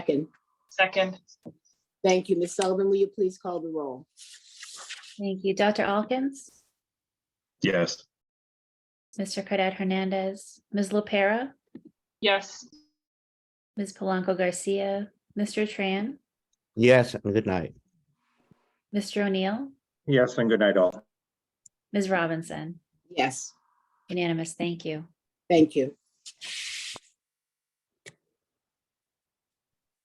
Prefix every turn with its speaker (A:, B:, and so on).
A: Second.
B: Second,
A: Thank you. Ms. Sullivan, will you please call the roll?
C: Thank you. Dr. Alkins,
D: Yes.
C: Mr. Cadet Hernandez, Ms. LaPera,
B: yes,
C: Ms. Polanco Garcia, Mr. Tran,
E: Yes, and good night.
C: Mr. O'Neill,
D: Yes, and good night all.
C: Ms. Robinson.
A: Yes,
C: Unanimous, thank you.
A: thank you.